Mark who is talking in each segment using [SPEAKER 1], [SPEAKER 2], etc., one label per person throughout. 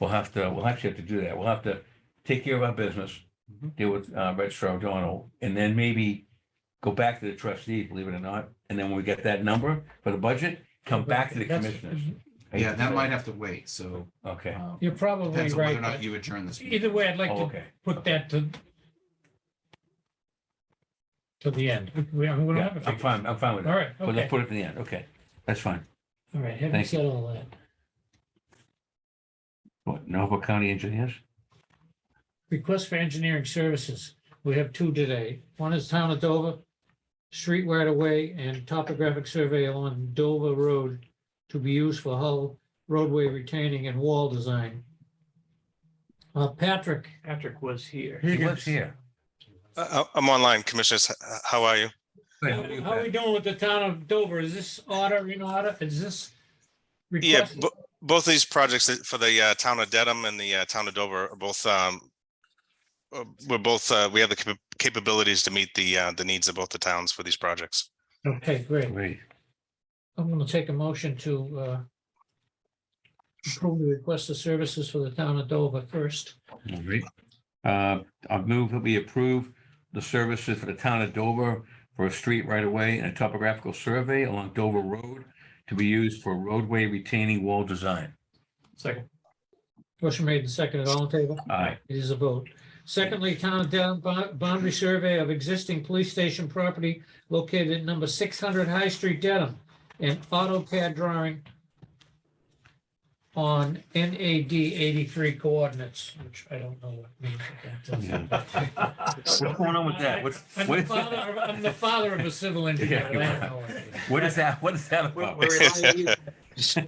[SPEAKER 1] we'll have to, we'll actually have to do that. We'll have to take care of our business,
[SPEAKER 2] Mm-hmm.
[SPEAKER 3] Mhm.
[SPEAKER 1] deal with uh, Registrar O'Donnell, and then maybe go back to the trustees, believe it or not. And then when we get that number for the budget, come back to the
[SPEAKER 3] That's-
[SPEAKER 1] commissioners.
[SPEAKER 2] mm-hmm.
[SPEAKER 1] I hate
[SPEAKER 3] Yeah,
[SPEAKER 1] to
[SPEAKER 3] that
[SPEAKER 1] say
[SPEAKER 3] might
[SPEAKER 1] it.
[SPEAKER 3] have to wait, so.
[SPEAKER 1] Okay.
[SPEAKER 3] um,
[SPEAKER 2] You're probably
[SPEAKER 3] Depends on whether
[SPEAKER 2] right,
[SPEAKER 3] or not
[SPEAKER 2] but
[SPEAKER 3] you adjourn this. meeting.
[SPEAKER 2] either way, I'd like
[SPEAKER 1] Oh,
[SPEAKER 2] to
[SPEAKER 1] okay.
[SPEAKER 2] put that to to the end. We, I mean, we don't
[SPEAKER 1] Yeah,
[SPEAKER 2] have a
[SPEAKER 1] I'm
[SPEAKER 2] figure.
[SPEAKER 1] fine, I'm fine with
[SPEAKER 2] All
[SPEAKER 1] that.
[SPEAKER 2] right,
[SPEAKER 1] But
[SPEAKER 2] okay,
[SPEAKER 1] let's put it to the end. Okay, that's fine.
[SPEAKER 2] all right, having
[SPEAKER 1] thank
[SPEAKER 2] said all that,
[SPEAKER 1] What, Norfolk County engineers?
[SPEAKER 2] request for engineering services, we have two today. One is town of Dover, street right of way and topographic survey along Dover Road to be used for hull, roadway retaining and wall design. Uh, Patrick. Patrick was here.
[SPEAKER 1] He lives here.
[SPEAKER 4] I- Uh, I'm online, commissioners. H- h- How are you?
[SPEAKER 1] How are you,
[SPEAKER 2] How are we
[SPEAKER 1] Pat?
[SPEAKER 2] doing with the town of Dover? Is this order in order? Is this?
[SPEAKER 4] Yeah,
[SPEAKER 2] request?
[SPEAKER 4] bo- both these projects that- for the uh, town of Dedham and the uh, town of Dover are both, um, uh, we're both, uh, we have the capa- capabilities to meet the, uh, the needs of both the towns for these projects.
[SPEAKER 2] Okay, great.
[SPEAKER 1] Great.
[SPEAKER 2] I'm going to take a motion to uh, approve the request of services for the town of Dover first.
[SPEAKER 1] All right. Uh, I move that we approve the services for the town of Dover for a street right away and a topographical survey along Dover Road to be used for roadway retaining wall design.
[SPEAKER 2] Second. Motion made and seconded. All in favor?
[SPEAKER 1] Aye.
[SPEAKER 2] It is a vote. Secondly, town of Dedham bo- boundary survey of existing police station property located at number 600 High Street, Dedham, and AutoCAD drawing on NAD 83 coordinates, which I don't know what means. but
[SPEAKER 1] Yeah.
[SPEAKER 2] that's-
[SPEAKER 1] What's going on with that? What's,
[SPEAKER 2] I'm
[SPEAKER 1] what
[SPEAKER 2] the
[SPEAKER 1] is
[SPEAKER 2] father,
[SPEAKER 1] that?
[SPEAKER 2] of- I'm the father of a civil engineer.
[SPEAKER 1] Yeah, you
[SPEAKER 2] I don't know what it is.
[SPEAKER 1] What is that? What is that about?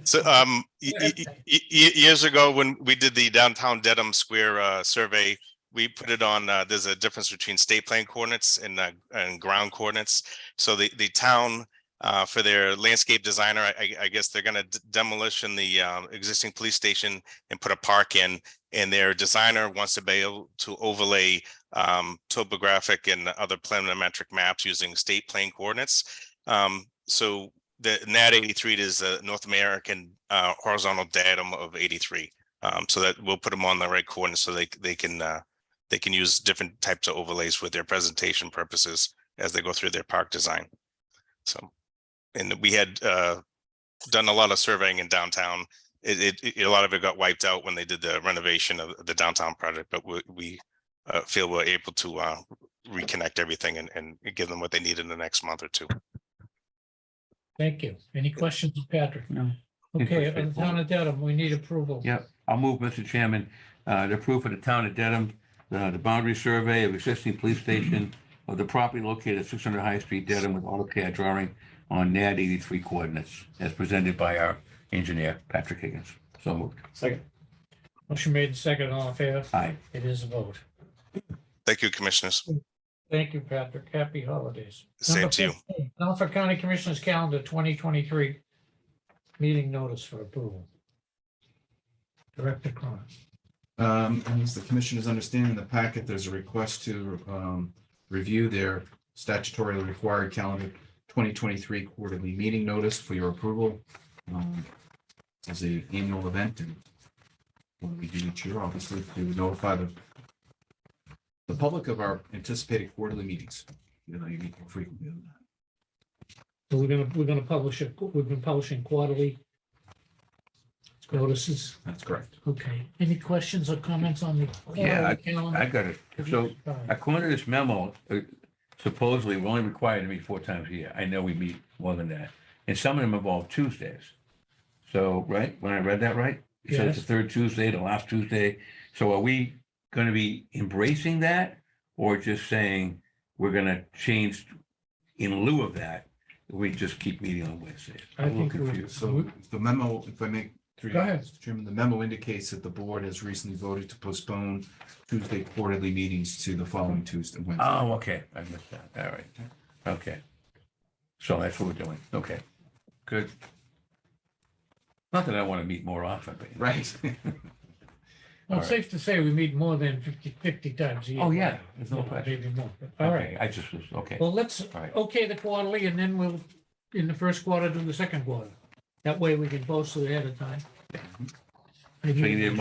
[SPEAKER 4] So, um, y- y- y- y- years ago, when we did the downtown Dedham Square, uh, survey, we put it on, uh, there's a difference between state plan coordinates and, uh, and ground coordinates. So the, the town, uh, for their landscape designer, I, I- I guess they're gonna d- demolition the, um, existing police station and put a park in. And their designer wants to be able to overlay, um, topographic and other planimetric maps using state plane coordinates. Um, so the NAT eighty-three is the North American uh horizontal datum of eighty-three. Um, so that we'll put them on the right coordinates so they they can uh they can use different types of overlays for their presentation purposes as they go through their park design. So, and we had uh done a lot of surveying in downtown. It it- it a lot of it got wiped out when they did the renovation of the downtown project, but we we uh feel we're able to uh reconnect everything and and give them what they need in the next month or two.
[SPEAKER 2] Thank you. Any questions, for Patrick?
[SPEAKER 1] No.
[SPEAKER 2] Okay, on the town of Dedham, we need approval.
[SPEAKER 1] Yeah, I'll move, Mr. Chairman, uh, to approve for the town of Dedham, uh, the boundary survey of existing police station of the property located at six hundred High Street, Dedham, with AutoCAD drawing on NAD eighty-three coordinates, as presented by our engineer, Patrick Higgins. So moved.
[SPEAKER 2] Motion made and seconded. All in favor?
[SPEAKER 1] Aye.
[SPEAKER 2] It is a vote.
[SPEAKER 4] Thank you, commissioners.
[SPEAKER 2] Thank you, Patrick. Happy holidays.
[SPEAKER 4] Same to you.
[SPEAKER 2] Number 15, Norfolk County Commissioners Calendar twenty twenty-three. Meeting notice for approval. Director Cronin.
[SPEAKER 3] Um, and as the commissioners understand in the packet, there's a request to, um, review their statutorily required calendar twenty twenty-three quarterly meeting notice for your approval. um, As a annual event and when we do each year, obviously, we would notify the the public of our anticipated quarterly meetings, you know, you meet more frequently than that.
[SPEAKER 2] So We're gonna, we're gonna publish it. We've been publishing quarterly notices.
[SPEAKER 3] That's correct.
[SPEAKER 2] Okay. Any questions or comments on the
[SPEAKER 1] Oh, Yeah,
[SPEAKER 2] quarterly calendar?
[SPEAKER 1] I got it. So according to this memo, uh, supposedly we're only required to meet four times a year. I know we meet more than that. And some of them involve Tuesdays. So, right, when I read that right? It said it's the third Tuesday, the last Tuesday. So are we going to be embracing that? Or just saying we're going to change in lieu of that? We just keep meeting on Wednesdays?
[SPEAKER 2] I
[SPEAKER 1] I'm a little
[SPEAKER 2] think we're-
[SPEAKER 1] confused.
[SPEAKER 3] So the memo, if I make three,
[SPEAKER 2] Mm-hmm. Go ahead.
[SPEAKER 3] Mr. Chairman, the memo indicates that the board has recently voted to postpone Tuesday quarterly meetings to the following Tuesday, Wednesday.
[SPEAKER 1] Oh, okay, I missed that. All right, okay. So that's what we're doing. Okay, good. Not that I want to meet more often, but.
[SPEAKER 2] Uh,
[SPEAKER 3] Right.
[SPEAKER 2] Well, it's safe to say we meet more than 50 50 times a year.
[SPEAKER 1] Oh, yeah, there's no
[SPEAKER 2] Well,
[SPEAKER 1] question.
[SPEAKER 2] Maybe more. All right.
[SPEAKER 1] Okay, I just was, okay,
[SPEAKER 2] Well, let's
[SPEAKER 1] all right.
[SPEAKER 2] okay the quarterly and then we'll, in the first quarter, do the second quarter. That way we can post it ahead of time.
[SPEAKER 1] So you need a